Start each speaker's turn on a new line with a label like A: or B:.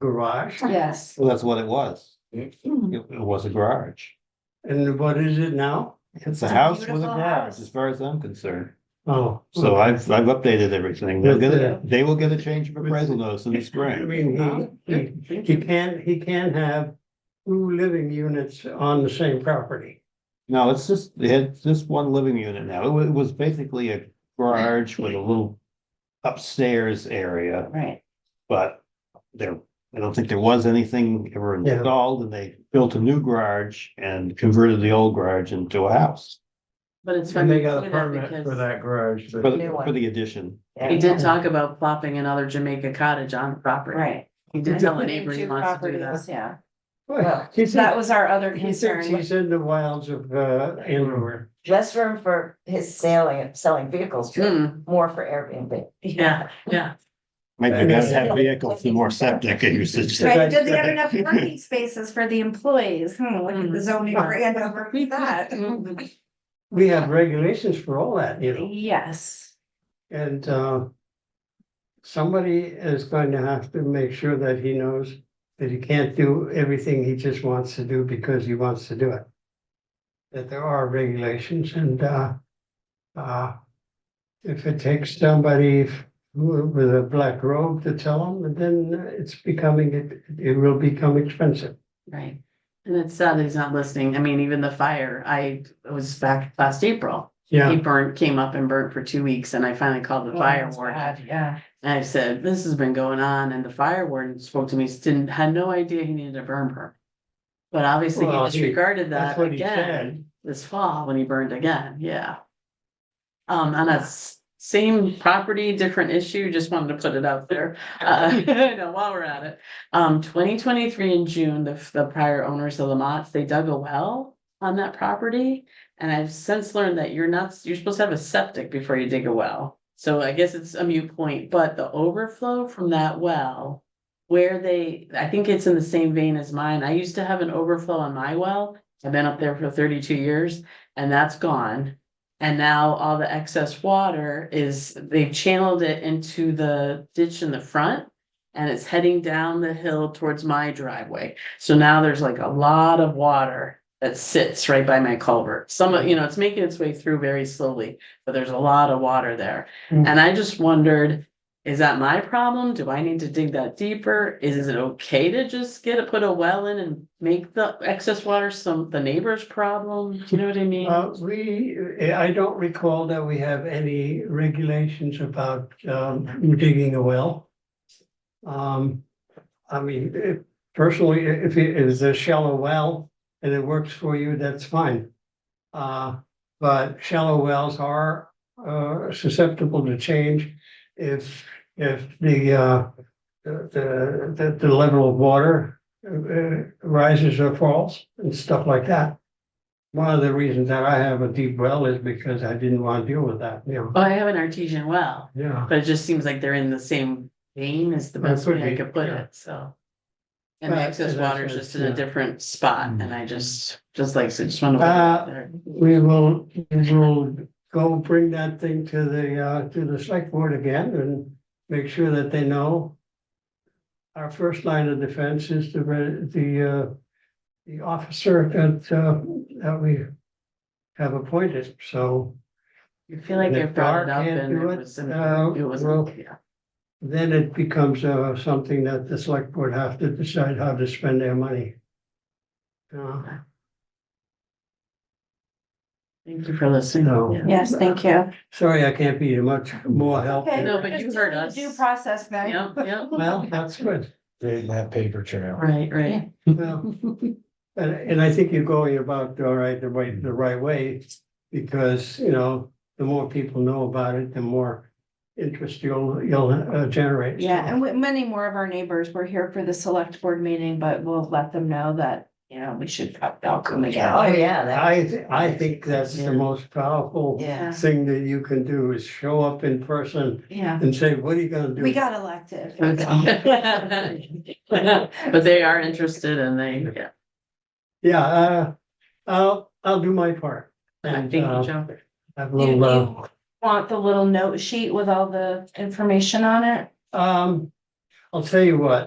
A: garage,
B: Yes,
C: Well, that's what it was. It
B: Mm-hmm.
C: it was a garage.
A: and what is it now?
C: It's a
B: It's a
C: house with a
B: beautiful
C: garage,
B: house.
C: as far as I'm concerned.
A: Oh.
C: So I've, I've updated everything. They'll get
A: Yeah.
C: a, they will get a change of
A: With-
C: appraisal notice in the
A: I
C: spring.
A: mean, he, he- he can, he can have two living units on the same property.
C: No, it's just, it's just one living unit now. It wa- it was basically a garage with a little upstairs area,
B: right.
C: but there, I don't think there was anything ever
A: Yeah.
C: installed and they built a new garage and converted the old garage into a house
D: But it's
E: And
D: funny.
E: they
D: you
E: got a
D: say that
E: permit for
D: because
E: that garage,
C: for,
E: but
B: New
C: the-
B: one.
C: for the addition.
B: Yeah.
D: He did talk about plopping another Jamaica cottage on the property.
B: Right.
D: He did tell the
B: Including
D: neighbor he
B: two
D: wants to do that.
B: properties, Yeah,
A: Well,
B: Well,
A: he
B: that
A: thinks,
B: was our other
A: he thinks
B: concern.
A: he's in the wilds of, uh, Andover.
F: less room for his selling, selling vehicles,
D: Hmm,
F: more for Airbnb.
D: yeah, yeah.
C: Maybe we gotta have vehicles and more septic usage.
B: Right, do they have enough parking spaces for the employees? Hmm, look
D: Mm-hmm.
B: at the zoning brand over that.
D: Mhm.
A: We have regulations for all that, you know,
B: Yes,
A: and, uh, somebody is going to have to make sure that he knows that he can't do everything he just wants to do because he wants to do it. That there are regulations and, uh, uh, if it takes somebody f- who- with a black robe to tell him, then it's becoming, it, it will become expensive.
D: Right. And it's sad that he's not listening. I mean, even the fire, I it was back last April. He
A: Yeah,
D: burned, came up and burned for two weeks and I finally
B: Oh,
D: called the fire warden.
B: yeah.
D: And I said, this has been going on and the fire warden spoke to me, didn't, had no idea he needed a burn permit. But obviously he
A: Well, he-
D: disregarded
A: that's
D: that
A: what he
D: again.
A: said.
D: this fall when he burned again, yeah. Um, on that s- same property, different issue, just wanted to put it out there, uh, you know, while we're at it. Um, twenty twenty-three in June, the, the prior owners of the lots, they dug a well on that property. And I've since learned that you're not, you're supposed to have a septic before you dig a well. So I guess it's a mute point, but the overflow from that well. Where they, I think it's in the same vein as mine. I used to have an overflow on my well. I've been up there for thirty-two years and that's gone. And now all the excess water is, they've channeled it into the ditch in the front. And it's heading down the hill towards my driveway. So now there's like a lot of water that sits right by my culvert. Some, of you know, it's making its way through very slowly, but there's a lot of water there.
A: Mm.
D: And I just wondered, is that my problem? Do I need to dig that deeper? Is it okay to just get it, put a well in and make the excess water some, the neighbor's problem? You know what I mean?
A: uh, we, I don't recall that we have any regulations about, um, digging a well. Um, I mean, eh, personally, i- if it is a shallow well and it works for you, that's fine. Uh, but shallow wells are, uh, susceptible to change if, if the, uh, the, the, the level of water uh, rises or falls and stuff like that. One of the reasons that I have a deep well is because I didn't want to deal with that, you know.
D: Oh, I have an artesian well,
A: Yeah.
D: but it just seems like they're in the same vein as the
A: That
D: best
A: could
D: way
A: be,
D: I could put
A: yeah.
D: it, so. And the
A: Right,
D: excess
A: and that's
D: water is
A: what-
D: just in
A: yeah. Mm.
D: a different spot and I just, just like, so just wanted to.
A: Uh,
D: put it out
A: We will, we will go bring that thing to the, uh, to the select board again and make sure that they know. Our first line of defense is the, re- the, uh, the officer that, uh, that we have appointed, so
D: there. I feel like
A: and
D: I
A: if
D: brought it
A: Dar
D: up
A: can't
D: and it
A: do it,
D: was,
A: uh,
D: it was,
A: we'll-
D: yeah.
A: then it becomes, uh, something that the select board have to decide how to spend their money. Uh,
D: Thank you for listening.
A: No.
D: Yeah.
B: yes, thank you.
A: Sorry, I can't be much more help.
B: Okay.
D: No, but you heard us.
B: Due process then.
D: Yep, yep,
A: Well, that's good.
E: they didn't have paper trail.
D: right, right.
A: Well, And, and I think you're going about, all right, the right, the right way, because, you know, the more people know about it, the more interest you'll, you'll uh, generate.
B: Yeah, and with many more of our neighbors were here for the select board meeting, but we'll let them know that, you know, we should probably all come
F: Oh,
B: again.
F: yeah, that,
A: I, thi- I think that's the most powerful
F: yeah.
A: thing that you can do is show up in person
B: Yeah,
A: and say, what are you gonna do?
B: we got elected.
D: But they are interested and they, yeah,
A: Yeah, uh, I'll, I'll do my part.
D: thank
A: And,
D: you,
A: uh,
D: Joe.
A: Have a
B: Do
A: little, uh,
B: you Want the little note sheet with all the information on it?
A: um, uh, I'll tell you what,